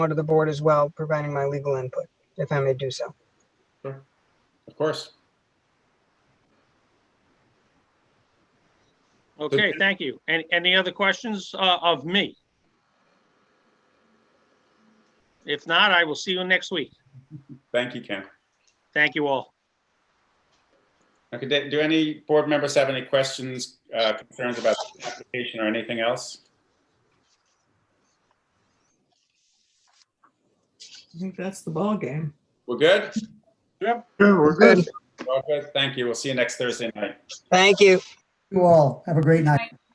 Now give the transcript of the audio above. to the board as well, providing my legal input, if I may do so. Of course. Okay, thank you. And any other questions uh, of me? If not, I will see you next week. Thank you, Ken. Thank you all. Okay, do- do any board members have any questions, uh, concerns about the application or anything else? I think that's the ballgame. We're good? Yeah, we're good. We're all good. Thank you. We'll see you next Thursday night. Thank you. You all have a great night.